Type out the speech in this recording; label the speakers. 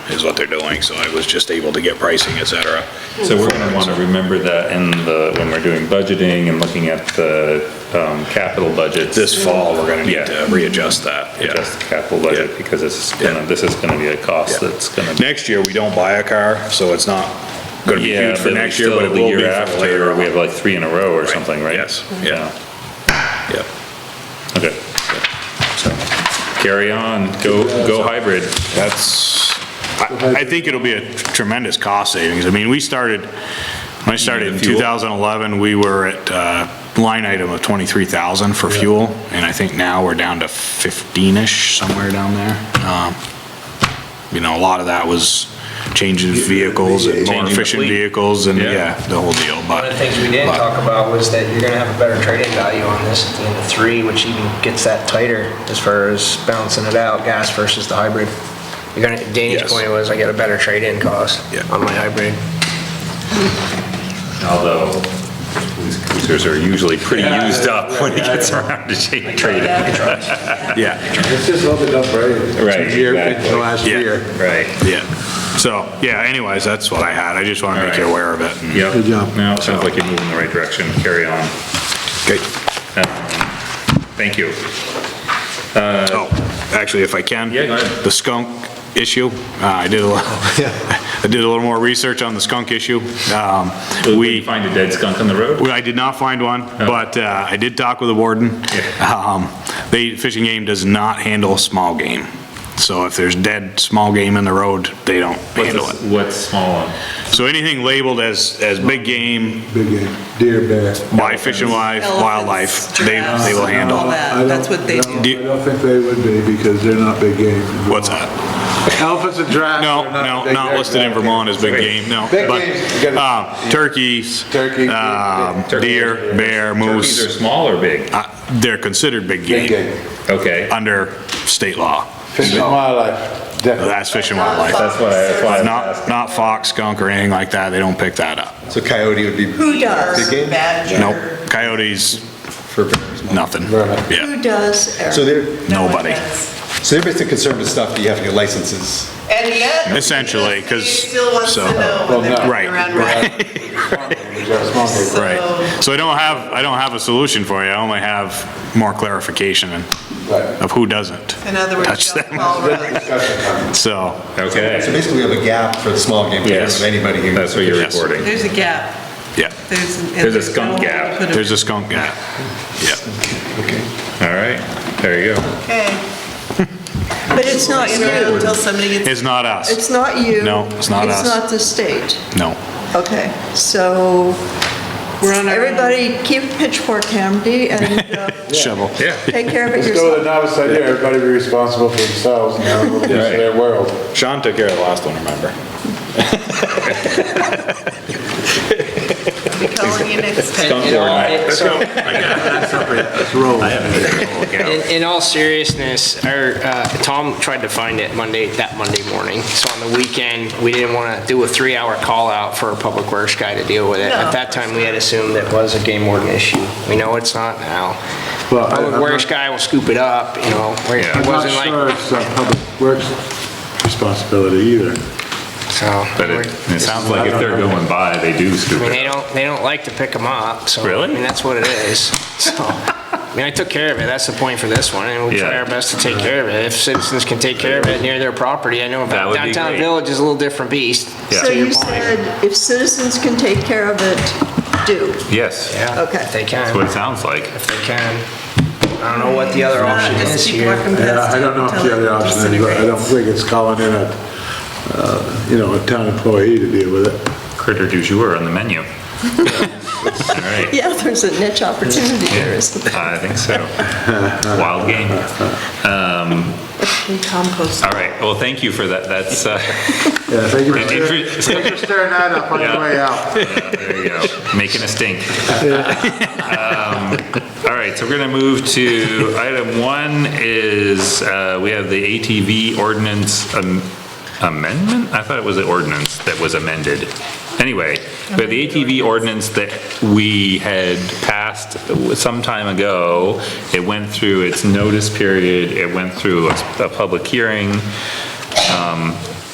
Speaker 1: is what they're doing, so I was just able to get pricing, et cetera.
Speaker 2: So we're gonna wanna remember that in the, when we're doing budgeting and looking at the, um, capital budgets.
Speaker 1: This fall, we're gonna need
Speaker 2: Yeah.
Speaker 1: to readjust that, yeah.
Speaker 2: Adjust the capital budget,
Speaker 1: Yeah.
Speaker 2: because this is gonna, this is gonna be a cost
Speaker 1: Yeah.
Speaker 2: that's gonna. be
Speaker 1: Next year, we don't buy a car, so it's not gonna be
Speaker 2: Yeah,
Speaker 1: huge for
Speaker 2: but
Speaker 1: next year,
Speaker 2: still
Speaker 1: but it
Speaker 2: the
Speaker 1: will be
Speaker 2: year
Speaker 1: for later
Speaker 2: after,
Speaker 1: on.
Speaker 2: we have like three in a row or something, right?
Speaker 1: Yes, yeah, yeah.
Speaker 2: Okay. So, Carry on, go, go hybrid.
Speaker 1: That's, I, I think it'll be a tremendous cost savings. I mean, we started, when I started in
Speaker 2: fuel?
Speaker 1: 2011, we were at, uh, line item of 23,000 for fuel, and I think now we're down to 15-ish, somewhere down there. Um, You know, a lot of that was changing vehicles and more
Speaker 2: Changing the
Speaker 1: efficient
Speaker 2: fleet.
Speaker 1: vehicles and,
Speaker 2: Yeah.
Speaker 1: yeah, the whole deal,
Speaker 3: One
Speaker 1: but.
Speaker 3: of the things we didn't
Speaker 1: but-
Speaker 3: talk about was that you're gonna have a better trade-in value on this at the end of three, which even gets that tighter as far as balancing it out, gas versus the hybrid. You're gonna,
Speaker 1: Yes.
Speaker 3: Danny's point was I get a better trade-in cost
Speaker 1: Yeah.
Speaker 3: on my hybrid.
Speaker 2: Although, police cruisers are usually pretty used up when it gets around to shade trading.
Speaker 1: Yeah,
Speaker 4: It's just loaded up, right?
Speaker 2: Right,
Speaker 4: Year,
Speaker 2: exactly.
Speaker 4: the last
Speaker 1: Yeah.
Speaker 4: year.
Speaker 2: Right.
Speaker 1: yeah. So, yeah, anyways, that's what I had. I just want to make you
Speaker 2: All right.
Speaker 1: aware of it. and-
Speaker 2: Yep.
Speaker 4: Good job.
Speaker 2: No, it sounds like you're moving in the right direction. Carry on. Um, Thank you.
Speaker 1: Oh, actually, if I can?
Speaker 2: Yeah, go ahead.
Speaker 1: The skunk issue, uh, I did a little, I did a little more research on the skunk issue. Um,
Speaker 2: We find Oh. a dead skunk on the road?
Speaker 1: well, I did not find one, but uh, I did talk with the warden. Um, They, fishing game does not handle small game. So if there's dead small game in the road, they don't
Speaker 2: What's
Speaker 1: handle
Speaker 2: this-
Speaker 1: it.
Speaker 2: What's small one?
Speaker 1: So anything labeled as, as big game
Speaker 4: Big game, deer, bear.
Speaker 1: by Fish and Life,
Speaker 5: Elephants,
Speaker 1: wildlife, they,
Speaker 5: giraffes,
Speaker 1: they will handle.
Speaker 5: All that,
Speaker 4: I don't-
Speaker 5: that's what they
Speaker 4: no,
Speaker 5: do.
Speaker 1: Do you-
Speaker 4: I don't think they would be because they're not big game.
Speaker 1: What's that?
Speaker 4: Elephants and giraffes.
Speaker 1: No,
Speaker 4: are
Speaker 1: no,
Speaker 4: big
Speaker 1: not
Speaker 4: game.
Speaker 1: listed in Vermont as big game, no.
Speaker 4: Big
Speaker 1: but,
Speaker 4: games, you gotta-
Speaker 1: uh, Turkeys.
Speaker 4: Turkey,
Speaker 1: um,
Speaker 2: turkey.
Speaker 1: Deer, bear,
Speaker 2: Turkeys are
Speaker 1: moose,
Speaker 2: small or big?
Speaker 1: uh, they're considered big
Speaker 4: Big
Speaker 1: game
Speaker 4: game.
Speaker 2: Okay.
Speaker 1: under state law.
Speaker 4: Fish and wildlife, definitely.
Speaker 1: That's fish and wildlife.
Speaker 2: That's what I, that's why I was
Speaker 1: Not,
Speaker 2: asking.
Speaker 1: not fox, skunk, or anything like that, they don't pick that up.
Speaker 6: So coyote would be.
Speaker 5: Who does
Speaker 6: Big game?
Speaker 5: badger?
Speaker 1: Nope, coyotes,
Speaker 6: For bears.
Speaker 1: nothing.
Speaker 4: Right.
Speaker 1: Yeah,
Speaker 5: Who does arrow?
Speaker 6: So they're-
Speaker 5: No one
Speaker 1: Nobody.
Speaker 5: does.
Speaker 6: So they're basically concerned with stuff that you have to get licenses.
Speaker 5: And yet.
Speaker 1: Essentially, 'cause-
Speaker 5: he Still wants to
Speaker 1: so-
Speaker 5: know
Speaker 4: Well,
Speaker 5: when they're
Speaker 4: no.
Speaker 5: coming
Speaker 1: Right,
Speaker 5: around.
Speaker 1: right.
Speaker 4: You got a small game.
Speaker 1: right. So I don't have, I don't have a solution for you, I only have more clarification
Speaker 4: Right.
Speaker 1: of who doesn't.
Speaker 5: In other words,
Speaker 1: Touch
Speaker 5: don't
Speaker 1: them.
Speaker 5: fall right.
Speaker 4: Discussion time.
Speaker 1: So,
Speaker 6: So
Speaker 2: Okay.
Speaker 6: basically, we have a gap for the small game players,
Speaker 2: Yes.
Speaker 6: and anybody who.
Speaker 2: That's what you're
Speaker 1: Yes.
Speaker 2: recording.
Speaker 5: There's a gap.
Speaker 1: yeah,
Speaker 5: There's. and
Speaker 2: There's a
Speaker 5: no
Speaker 2: skunk
Speaker 5: way to
Speaker 2: gap.
Speaker 5: put it.
Speaker 1: there's a skunk guy. Yeah.
Speaker 2: All right. There you go.
Speaker 5: Okay. But it's not you until somebody gets.
Speaker 1: It's not us.
Speaker 5: It's not you.
Speaker 1: No, it's not us.
Speaker 5: It's not the state.
Speaker 1: No.
Speaker 5: Okay, so everybody keep pitchfork handy and uh,
Speaker 1: Shovel. Yeah.
Speaker 5: take care of it
Speaker 4: Let's go to
Speaker 5: yourself.
Speaker 4: the novice idea, everybody be responsible for themselves and their little piece of their world.
Speaker 1: Sean took care of the last one, remember?
Speaker 5: Be calling you next time.
Speaker 2: Skunk or not.
Speaker 3: In, in all seriousness, our, uh, Tom tried to find it Monday, that Monday morning. So on the weekend, we didn't want to do a three-hour call-out for a public works guy to deal with it.
Speaker 5: No.
Speaker 3: At that time, we had assumed it was a game warden issue. We know it's not now.
Speaker 4: Well, I- I'm
Speaker 3: Public works
Speaker 4: not-
Speaker 3: guy will scoop it up, you know.
Speaker 2: Yeah.
Speaker 3: It
Speaker 4: I'm not
Speaker 3: wasn't
Speaker 4: sure
Speaker 3: like,
Speaker 4: it's uh, public works responsibility either.
Speaker 3: so.
Speaker 2: But it, it sounds like if they're going by, they do
Speaker 3: I
Speaker 2: scoop
Speaker 3: mean,
Speaker 2: it
Speaker 3: they
Speaker 2: up.
Speaker 3: don't, they don't like to pick them up, so.
Speaker 2: Really?
Speaker 3: I mean, that's what it is. So, I mean, I took care of it, that's the point for this one, and we try
Speaker 2: Yeah.
Speaker 3: our best to take care of it. If citizens can take care of it near their property, I know
Speaker 2: That
Speaker 3: about
Speaker 2: would be
Speaker 3: downtown
Speaker 2: great.
Speaker 3: village is a little different beast.
Speaker 2: Yeah.
Speaker 5: So
Speaker 3: to your
Speaker 5: you
Speaker 3: point.
Speaker 5: said if citizens can take care of it, do.
Speaker 2: Yes.
Speaker 3: Yeah,
Speaker 5: Okay.
Speaker 3: if they
Speaker 2: That's what
Speaker 3: can,
Speaker 2: it sounds like.
Speaker 3: if they can. I don't know what the other option
Speaker 5: Just
Speaker 3: is
Speaker 5: keep
Speaker 3: here.
Speaker 5: working
Speaker 4: Yeah,
Speaker 5: past
Speaker 4: I
Speaker 5: it
Speaker 4: don't know if
Speaker 5: until
Speaker 4: the other
Speaker 5: it
Speaker 4: option is, but I don't
Speaker 5: disintegrates.
Speaker 4: think it's calling in a, uh, you know, a town employee to deal with it.
Speaker 2: Critter du jour on the menu. All right.
Speaker 5: Yeah, there's a niche opportunity there, isn't there?
Speaker 2: I think so. Wild game.
Speaker 5: In compost.
Speaker 2: All right. Well, thank you for that. That's, uh,
Speaker 4: Yeah, thank you for
Speaker 2: An
Speaker 4: stirring-
Speaker 2: interest-
Speaker 4: thank you for stirring that up on
Speaker 2: Yeah.
Speaker 4: your way out.
Speaker 2: there you go. Making a stink. Um, All right. So we're going to move to item one is, uh, we have the ATV ordinance am- amendment? I thought it was the ordinance that was amended. Anyway, we have the ATV ordinance that we had passed some time ago. It went through its notice period. It went through a, a public hearing. Um,